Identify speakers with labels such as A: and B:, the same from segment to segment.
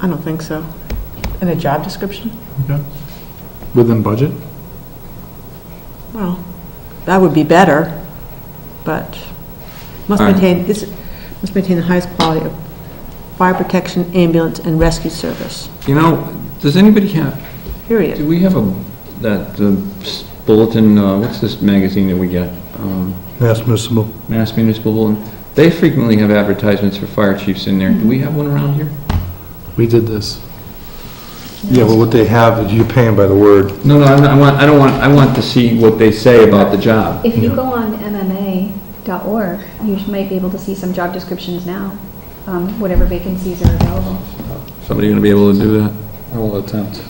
A: I don't think so. In a job description?
B: Okay. Within budget?
A: Well, that would be better, but must
C: All right.
A: maintain, this, must maintain the highest quality of fire protection, ambulance, and rescue service,
C: You know, does anybody have, do
A: period.
C: we have a, that, the bulletin, uh, what's this magazine that we get? Um,
D: That's admissible.
C: Mass Municipal Bulletin? They frequently have advertisements for fire chiefs in there. Do we have one around here?
B: We did this.
D: Yeah, but what they have is you pay them by the word.
C: No, no, I'm not- I want, I don't want, I want to see what they say about the job.
E: If you go on MMA.org, you might be able to see some job descriptions now, um, whatever vacancies are available.
C: Somebody gonna be able to do that?
B: I will attempt.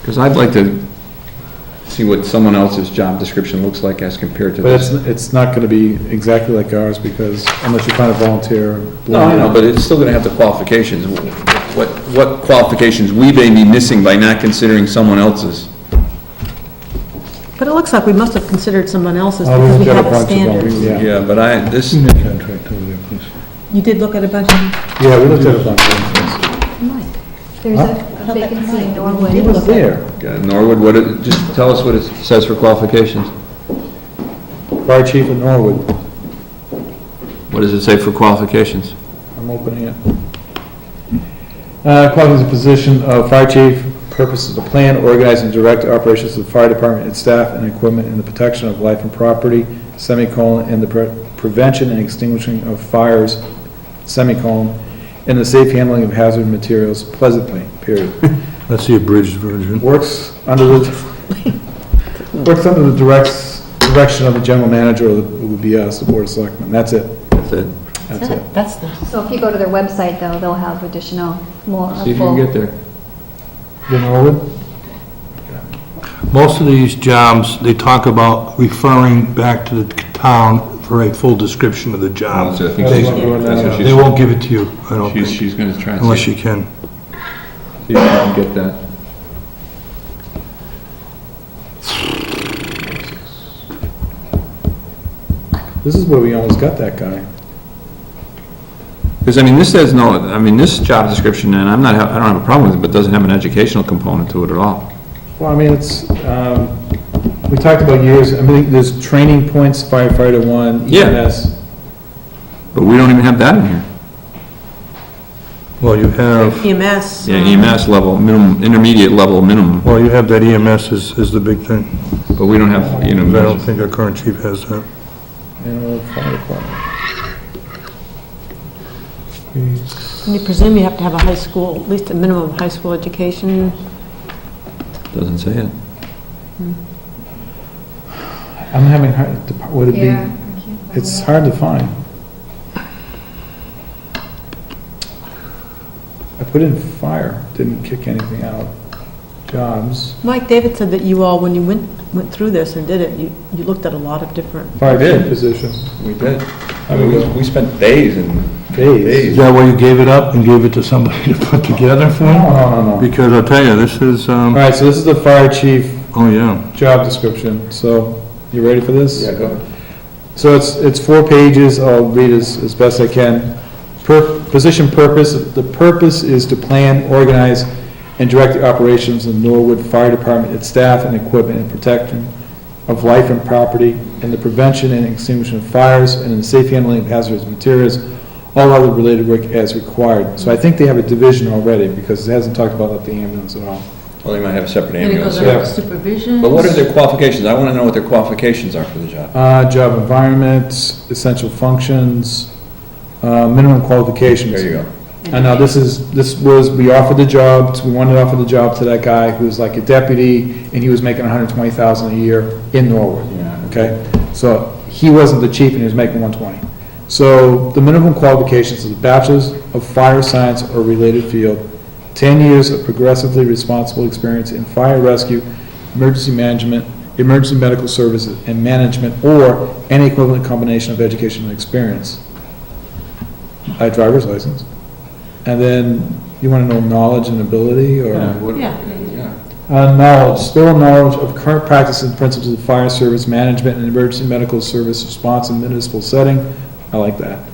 C: Because I'd like to see what someone else's job description looks like as compared to
B: But it's,
C: this.
B: it's not gonna be exactly like ours, because unless you find a volunteer. Uh,
C: No, I know, but it's still gonna have the qualifications. What, what qualifications we may be missing by not considering someone else's.
A: But it looks like we must have considered someone else's
B: Oh,
A: because
B: we've
A: we
B: got a
A: have a
B: bunch of them.
A: standard.
B: Yeah,
C: Yeah, but I, this,
A: You did look at a bunch of,
B: yeah, we looked at a bunch of them.
E: There's
B: Huh?
E: a- a vacancy in Norwood.
A: did look at.
B: There,
C: God, Norwood, what, it- just tell us what it says for qualifications.
B: fire chief in Norwood,
C: What does it say for qualifications?
B: I'm opening it. Uh, qualifies the position of fire chief, purposes to plan, organize, and direct operations of the fire department and staff and equipment in the protection of life and property, semicolon, and the pre- prevention and extinguishing of fires, semicolon, and the safe handling of hazard materials pleasantly, period.
D: That's the abridged version.
B: Works under the, works under the directs, direction of the general manager, or the- it would be us, the board of selectmen, that's it,
C: That's it.
B: that's it.
A: That's the,
E: So if you go to their website, though, they'll have additional, more,
C: See
E: a
C: if you can
E: full
C: get there.
B: You know, Norwood?
D: Most of these jobs, they talk about referring back to the town for a full description of the job.
C: That's what I think
B: That's
C: she's
B: what I'm doing
C: doing. That's what
B: now.
C: she's-
D: They won't give it to you, I don't
C: She's,
D: think,
C: she's gonna try and
D: unless
C: see
D: you can.
C: see if you can get that.
B: This is where we almost got that guy.
C: Because, I mean, this says no, I mean, this job description, and I'm not, ha- I don't have a problem with it, but doesn't have an educational component to it at all.
B: Well, I mean, it's, um, we talked about years, I mean, there's training points, firefighter one, E
C: Yeah.
B: EMS.
C: But we don't even have that in here.
D: Well, you have,
A: EMS.
C: Oh. Yeah, E
A: um,
C: EMS level, minimum, intermediate level, minimum,
D: well, you have that EMS is, is the big thing,
C: but we don't have, you
D: because I don't
C: know,
D: think our current chief has that.
B: Animal fire department.
A: And you presume you have to have a high school, at least a minimum of high school education.
C: doesn't say it.
B: I'm having, hard depart- would it be?
E: Yeah, I can't find
B: It's
E: it.
B: hard to find. I put in fire, didn't kick anything out. Jobs,
A: Mike, David said that you all, when you went, went through this and did it, you, you looked at a lot of different,
B: fire
C: did.
B: chief position,
C: We did.
B: I mean, we-
C: spent days and.
B: days.
D: Is that why you gave it up and gave it to somebody to put together for
B: No,
D: you?
B: no, no, no.
D: Because I'll tell you, this is,
B: All
D: um,
B: right, so this is the fire chief
D: oh, yeah.
B: job description, so you ready for this?
C: go ahead.
B: So it's, it's four pages, I'll read as, as best I can. Per, position purpose, the purpose is to plan, organize, and direct the operations of Norwood Fire Department, its staff and equipment, and protection of life and property, and the prevention and extinguishing of fires, and the safe handling of hazardous materials, all other related work as required. So I think they have a division already, because it hasn't talked about the ambulance at all.
C: Well, they might have a separate
F: And it goes
B: ambulance.
F: under supervision.
C: their qualifications? I want to know what their qualifications are for the job.
B: Uh, job environment, essential functions, uh, minimum qualifications.
C: go.
B: I know, this is, this was, we offered the job, we wanted to offer the job to that guy who was like a deputy, and he was making hundred and twenty thousand a year in Norwood, okay? So he wasn't the chief and he was making one twenty. So the minimum qualifications is a bachelor's of fire science or related field, ten years of progressively responsible experience in fire rescue, emergency management, emergency medical services, and management, or any equivalent combination of education and experience. A driver's license. And then, you want to know knowledge and ability, or?
A: Yeah.
B: Uh, knowledge, thorough knowledge of current practices and principles of fire service management and emergency medical service response in municipal setting. I like that.